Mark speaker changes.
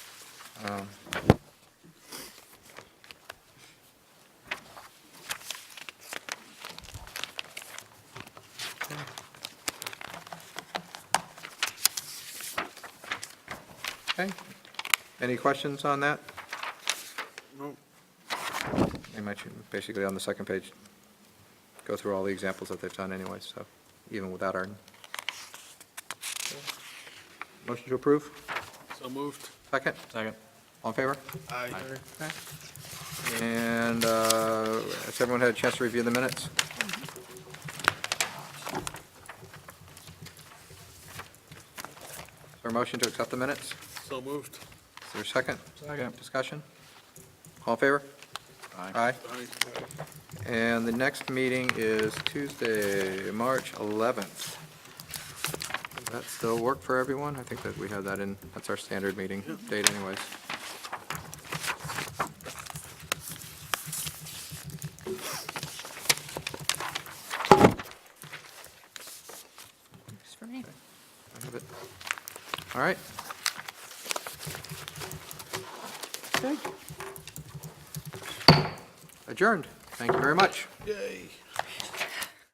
Speaker 1: Um, Okay. Any questions on that?
Speaker 2: No.
Speaker 1: Pretty much, basically on the second page, go through all the examples that they've done anyway, so, even without our. Motion to approve?
Speaker 2: So moved.
Speaker 1: Second?
Speaker 3: Second.
Speaker 1: All in favor?
Speaker 2: Aye.
Speaker 1: And uh, has everyone had a chance to review the minutes? Is there a motion to accept the minutes?
Speaker 2: So moved.
Speaker 1: Is there a second?
Speaker 3: Second.
Speaker 1: Discussion? All in favor? Aye.
Speaker 2: Aye.
Speaker 1: And the next meeting is Tuesday, March 11th. Does that still work for everyone? I think that we have that in, that's our standard meeting date anyways.
Speaker 4: Works for me.
Speaker 1: I have it. All right. Okay. Adjourned. Thank you very much.
Speaker 2: Yay.